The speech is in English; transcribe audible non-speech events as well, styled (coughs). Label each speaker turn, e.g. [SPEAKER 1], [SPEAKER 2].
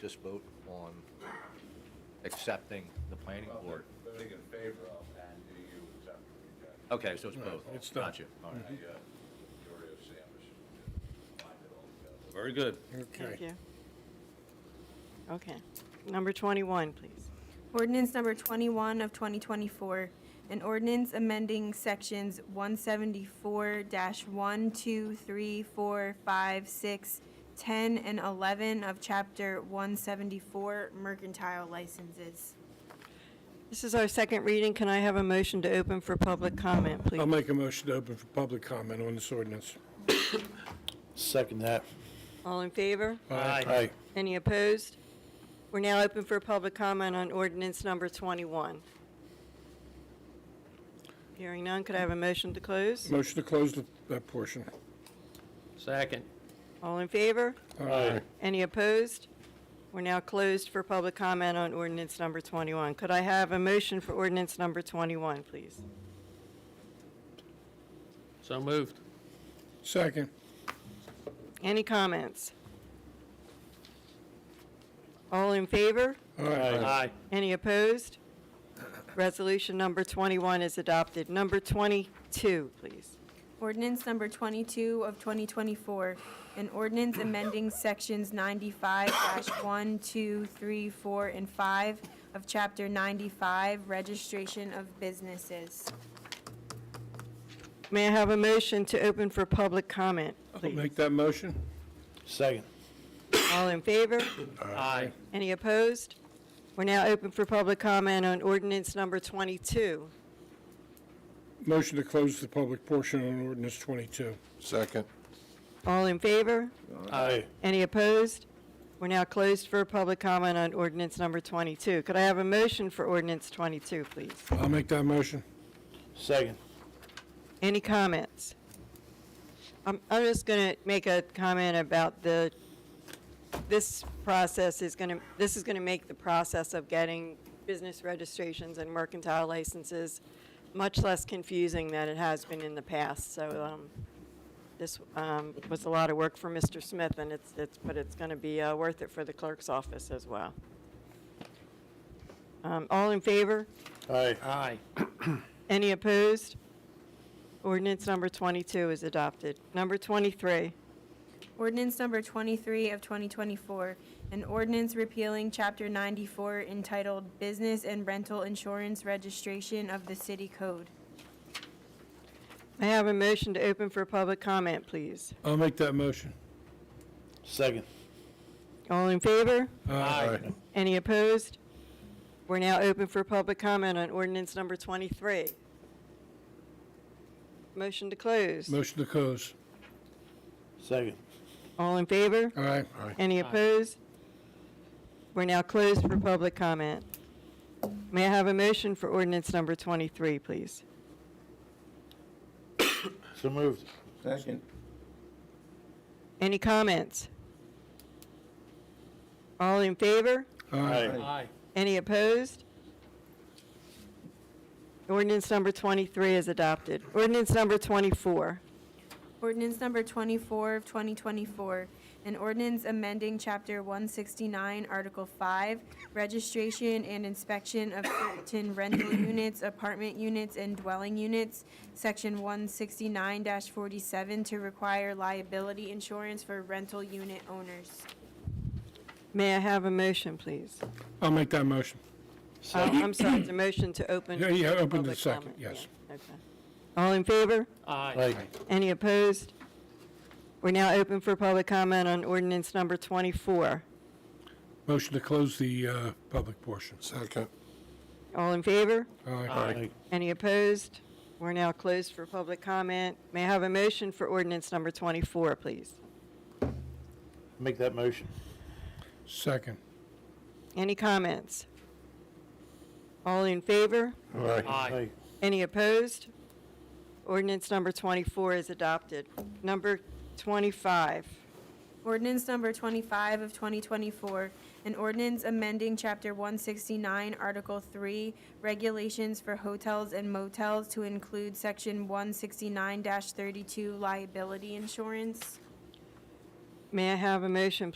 [SPEAKER 1] just vote on accepting the planning board?
[SPEAKER 2] Voting in favor of and do you accept or reject?
[SPEAKER 1] Okay, so it's both?
[SPEAKER 3] it's done.
[SPEAKER 1] Gotcha, all right.
[SPEAKER 2] I, uh, Dory of Sandwich, combined it all together.
[SPEAKER 1] Very good.
[SPEAKER 3] Okay.
[SPEAKER 4] Thank you. Okay. Number 21, please.
[SPEAKER 5] Ordinance number 21 of 2024, an ordinance amending sections 174-1, 2, 3, 4, 5, 6, 10, and 11 of Chapter 174 Mercantile Licenses.
[SPEAKER 4] This is our second reading. Can I have a motion to open for public comment, please?
[SPEAKER 3] I'll make a motion to open for public comment on this ordinance.
[SPEAKER 6] Second that.
[SPEAKER 4] All in favor?
[SPEAKER 6] Aye.
[SPEAKER 4] Any opposed? We're now open for public comment on ordinance number 21. Hearing none, could I have a motion to close?
[SPEAKER 3] Motion to close the- that portion.
[SPEAKER 6] Second.
[SPEAKER 4] All in favor?
[SPEAKER 3] Aye.
[SPEAKER 4] Any opposed? We're now closed for public comment on ordinance number 21. Could I have a motion for ordinance number 21, please?
[SPEAKER 6] So moved.
[SPEAKER 3] Second.
[SPEAKER 4] Any comments? All in favor?
[SPEAKER 6] Aye.
[SPEAKER 4] Any opposed? Resolution number 21 is adopted. Number 22, please.
[SPEAKER 5] Ordinance number 22 of 2024, an ordinance amending sections 95-1, 2, 3, 4, and 5 of Chapter 95 Registration of Businesses.
[SPEAKER 4] May I have a motion to open for public comment,
[SPEAKER 3] I'll
[SPEAKER 4] please?
[SPEAKER 3] make that motion.
[SPEAKER 6] Second.
[SPEAKER 4] All in favor?
[SPEAKER 6] Aye.
[SPEAKER 4] Any opposed? We're now open for public comment on ordinance number 22.
[SPEAKER 3] Motion to close the public portion on ordinance 22.
[SPEAKER 6] Second.
[SPEAKER 4] All in favor?
[SPEAKER 6] Aye.
[SPEAKER 4] Any opposed? We're now closed for public comment on ordinance number 22. Could I have a motion for ordinance 22, please?
[SPEAKER 3] I'll make that motion.
[SPEAKER 6] Second.
[SPEAKER 4] Any comments? I'm, I'm just going to make a comment about the, this process is going to, this is going to make the process of getting business registrations and mercantile licenses much less confusing than it has been in the past. So um, this um, was a lot of work for Mr. Smith, and it's, it's, but it's going to be uh, worth it for the clerk's office as well. Um, All in favor?
[SPEAKER 6] Aye. Aye.
[SPEAKER 4] Any opposed? Ordinance number 22 is adopted. Number 23,
[SPEAKER 5] Ordinance number 23 of 2024, an ordinance repealing Chapter 94 entitled Business and Rental Insurance Registration of the City Code.
[SPEAKER 4] I have a motion to open for public comment, please.
[SPEAKER 3] I'll make that motion.
[SPEAKER 6] Second.
[SPEAKER 4] All in favor?
[SPEAKER 3] Aye.
[SPEAKER 4] Any opposed? We're now open for public comment on ordinance number 23. Motion to close.
[SPEAKER 3] Motion to close.
[SPEAKER 6] Second.
[SPEAKER 4] All in favor?
[SPEAKER 3] Aye.
[SPEAKER 4] Any opposed? We're now closed for public comment. May I have a motion for ordinance number 23, please?
[SPEAKER 6] So moved.
[SPEAKER 4] Any comments? All in favor?
[SPEAKER 6] Aye.
[SPEAKER 4] Any opposed? Ordinance number 23 is adopted. Ordinance number 24.
[SPEAKER 5] Ordinance number 24 of 2024, an ordinance amending Chapter 169, Article 5, Registration and Inspection of Certain Rental (coughs) Units, Apartment Units, and Dwelling Units, Section 169-47, to require liability insurance for rental unit owners.
[SPEAKER 4] May I have a motion, please?
[SPEAKER 3] I'll make that motion.
[SPEAKER 4] Uh, I'm sorry, it's a motion to open.
[SPEAKER 3] Yeah, yeah, open to
[SPEAKER 4] public
[SPEAKER 3] second,
[SPEAKER 4] comment.
[SPEAKER 3] yes.
[SPEAKER 4] Yeah, okay. All in favor?
[SPEAKER 6] Aye.
[SPEAKER 4] Any opposed? We're now open for public comment on ordinance number 24.
[SPEAKER 3] Motion to close the uh, public portion.
[SPEAKER 6] Second.
[SPEAKER 4] All in favor?
[SPEAKER 3] Aye.
[SPEAKER 4] Any opposed? We're now closed for public comment. May I have a motion for ordinance number 24, please?
[SPEAKER 6] Make that motion.
[SPEAKER 3] Second.
[SPEAKER 4] Any comments? All in favor?
[SPEAKER 6] Aye. Aye.
[SPEAKER 4] Any opposed? Ordinance number 24 is adopted. Number 25,
[SPEAKER 5] Ordinance number 25 of 2024, an ordinance amending Chapter 169, Article 3, Regulations for Hotels and Motels to include Section 169-32 Liability Insurance.
[SPEAKER 4] may I have a motion,